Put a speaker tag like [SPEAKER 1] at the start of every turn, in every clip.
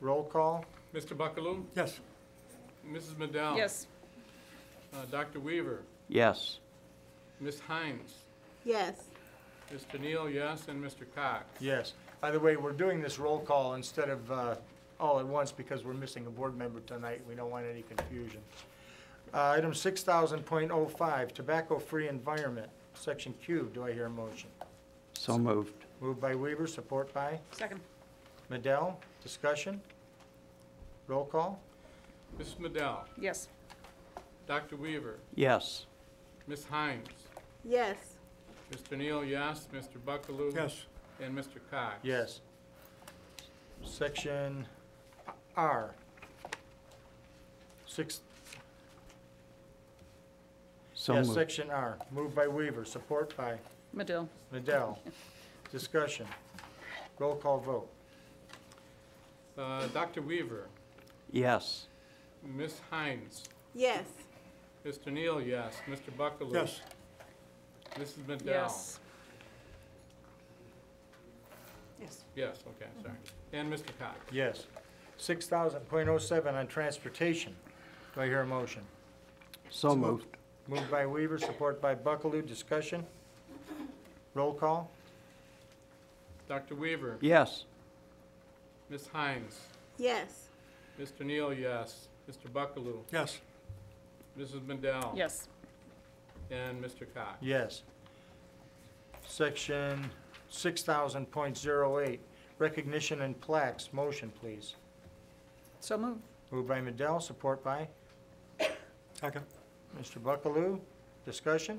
[SPEAKER 1] Roll call?
[SPEAKER 2] Mr. Buckaloo?
[SPEAKER 1] Yes.
[SPEAKER 2] Mrs. McDowell?
[SPEAKER 3] Yes.
[SPEAKER 2] Uh, Dr. Weaver?
[SPEAKER 4] yes,
[SPEAKER 2] Ms. Hines?
[SPEAKER 5] yes,
[SPEAKER 2] Mr. Neal, yes, and Mr. Cox?
[SPEAKER 1] Yes. By the way, we're doing this roll call instead of uh, all at once because we're missing a board member tonight. We don't want any confusion. Uh, Item 6000.05, Tobacco-Free Environment, Section Q. Do I hear a motion?
[SPEAKER 4] so moved,
[SPEAKER 1] Moved by Weaver, support by
[SPEAKER 3] Second.
[SPEAKER 1] Madell. Discussion? Roll call?
[SPEAKER 2] Mrs. McDowell?
[SPEAKER 3] Yes.
[SPEAKER 2] Dr. Weaver?
[SPEAKER 4] yes,
[SPEAKER 2] Ms. Hines?
[SPEAKER 5] yes,
[SPEAKER 2] Mr. Neal, yes, Mr. Buckaloo? And Mr. Cox?
[SPEAKER 1] Yes. Section R. Six,
[SPEAKER 4] so
[SPEAKER 1] yes,
[SPEAKER 4] moved,
[SPEAKER 1] Section R. Moved by Weaver, support by
[SPEAKER 3] Medill.
[SPEAKER 1] Madell. Discussion. Roll call vote.
[SPEAKER 2] Uh, Dr. Weaver?
[SPEAKER 4] yes,
[SPEAKER 2] Ms. Hines?
[SPEAKER 5] yes,
[SPEAKER 2] Mr. Neal, yes, Mr. Buckaloo? Mrs. McDowell?
[SPEAKER 3] Yes. Yes.
[SPEAKER 2] Yes, okay, sorry. And Mr. Cox?
[SPEAKER 1] Yes. Six thousand point oh seven on transportation. Do I hear a motion?
[SPEAKER 4] so moved,
[SPEAKER 1] Moved by Weaver, support by Buckaloo. Discussion. Roll call?
[SPEAKER 2] Dr. Weaver?
[SPEAKER 4] yes,
[SPEAKER 2] Ms. Hines?
[SPEAKER 5] yes,
[SPEAKER 2] Mr. Neal, yes, Mr. Buckaloo?
[SPEAKER 1] Yes.
[SPEAKER 2] Mrs. McDowell?
[SPEAKER 3] Yes.
[SPEAKER 2] And Mr. Cox?
[SPEAKER 1] Yes. Section six thousand point zero eight, recognition and plaques. Motion, please.
[SPEAKER 3] So moved.
[SPEAKER 1] Moved by Madell, support by?
[SPEAKER 6] Second.
[SPEAKER 1] Mr. Buckaloo. Discussion.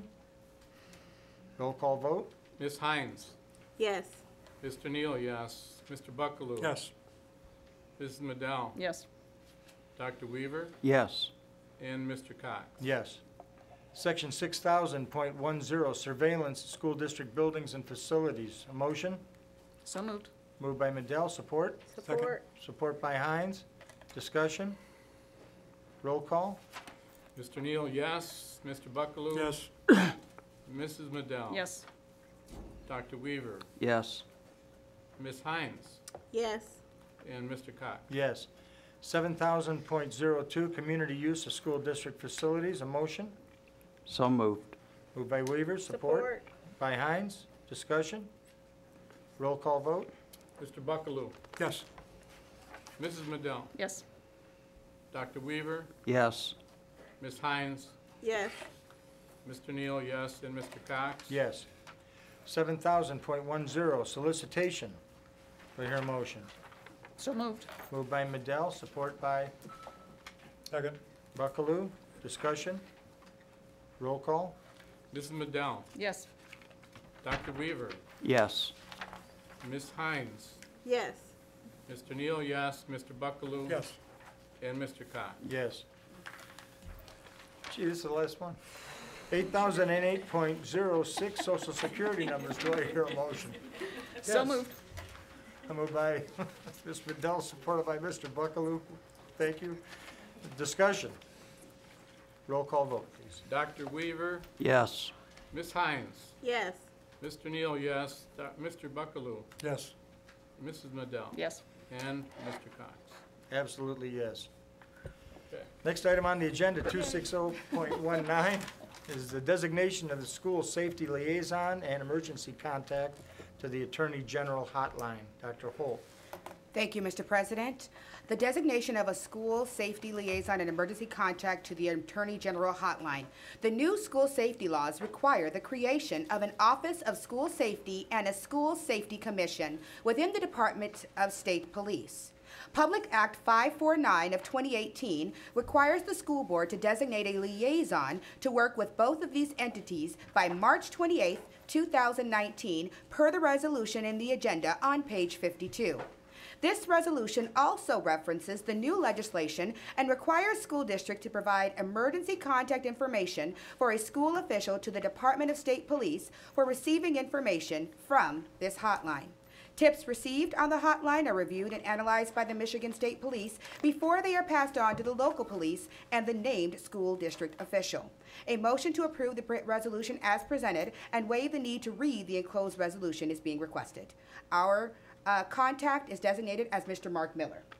[SPEAKER 1] Roll call vote?
[SPEAKER 2] Ms. Hines?
[SPEAKER 5] yes,
[SPEAKER 2] Mr. Neal, yes. Mr. Buckaloo?
[SPEAKER 6] Yes,
[SPEAKER 2] Mrs. Madell?
[SPEAKER 3] Yes.
[SPEAKER 2] Dr. Weaver?
[SPEAKER 4] yes,
[SPEAKER 2] And Mr. Cox?
[SPEAKER 1] Yes. Section six thousand point one zero, surveillance, school district buildings and facilities. A motion?
[SPEAKER 3] So moved.
[SPEAKER 1] Moved by Madell, support?
[SPEAKER 5] support,
[SPEAKER 1] Support by Hines. Discussion? Roll call?
[SPEAKER 2] Mr. Neal, yes. Mr. Buckaloo?
[SPEAKER 6] yes,
[SPEAKER 2] Mrs. Madell?
[SPEAKER 3] Yes.
[SPEAKER 2] Dr. Weaver?
[SPEAKER 4] yes,
[SPEAKER 2] Ms. Hines?
[SPEAKER 5] yes,
[SPEAKER 2] And Mr. Cox?
[SPEAKER 1] Yes. Seven thousand point zero two, community use of school district facilities. A motion?
[SPEAKER 4] so moved,
[SPEAKER 1] Moved by Weaver, support?
[SPEAKER 5] support,
[SPEAKER 1] By Hines. Discussion? Roll call vote?
[SPEAKER 2] Mr. Buckaloo?
[SPEAKER 6] yes,
[SPEAKER 2] Mrs. Madell?
[SPEAKER 3] Yes.
[SPEAKER 2] Dr. Weaver?
[SPEAKER 4] yes,
[SPEAKER 2] Ms. Hines?
[SPEAKER 5] yes,
[SPEAKER 2] Mr. Neal, yes. And Mr. Cox?
[SPEAKER 1] Yes. Seven thousand point one zero, solicitation. Do I hear a motion?
[SPEAKER 3] So moved.
[SPEAKER 1] Moved by Madell, support by
[SPEAKER 6] second,
[SPEAKER 1] Buckaloo. Discussion? Roll call?
[SPEAKER 2] Mrs. Madell?
[SPEAKER 3] Yes.
[SPEAKER 2] Dr. Weaver?
[SPEAKER 4] yes,
[SPEAKER 2] Ms. Hines?
[SPEAKER 5] yes,
[SPEAKER 2] Mr. Neal, yes. Mr. Buckaloo?
[SPEAKER 6] yes,
[SPEAKER 2] And Mr. Cox?
[SPEAKER 1] Yes. Gee, this is the last one. Eight thousand and eight point zero six, social security numbers. Do I hear a motion?
[SPEAKER 3] So
[SPEAKER 1] Yes.
[SPEAKER 3] moved.
[SPEAKER 1] Moved by Ms. Madell, supported by Mr. Buckaloo. Thank you. Discussion? Roll call vote, please.
[SPEAKER 2] Dr. Weaver?
[SPEAKER 4] yes,
[SPEAKER 2] Ms. Hines?
[SPEAKER 5] yes,
[SPEAKER 2] Mr. Neal, yes. Doc- Mr. Buckaloo?
[SPEAKER 6] yes,
[SPEAKER 2] Mrs. Madell?
[SPEAKER 3] Yes.
[SPEAKER 2] And Mr. Cox?
[SPEAKER 1] Absolutely, yes.
[SPEAKER 2] Okay.
[SPEAKER 1] Next item on the agenda, 260.19, is the designation of the school safety liaison and emergency contact to the Attorney General Hotline. Dr. Holt.
[SPEAKER 7] Thank you, Mr. President. The designation of a school safety liaison and emergency contact to the Attorney General Hotline. The new school safety laws require the creation of an Office of School Safety and a School Safety Commission within the Department of State Police. Public Act 549 of 2018 requires the school board to designate a liaison to work with both of these entities by March 28, 2019, per the resolution in the agenda on page 52. This resolution also references the new legislation and requires school district to provide emergency contact information for a school official to the Department of State Police for receiving information from this hotline. Tips received on the hotline are reviewed and analyzed by the Michigan State Police before they are passed on to the local police and the named school district official. A motion to approve the pre- resolution as presented and waive the need to read the enclosed resolution is being requested. Our uh, contact is designated as Mr. Mark Miller.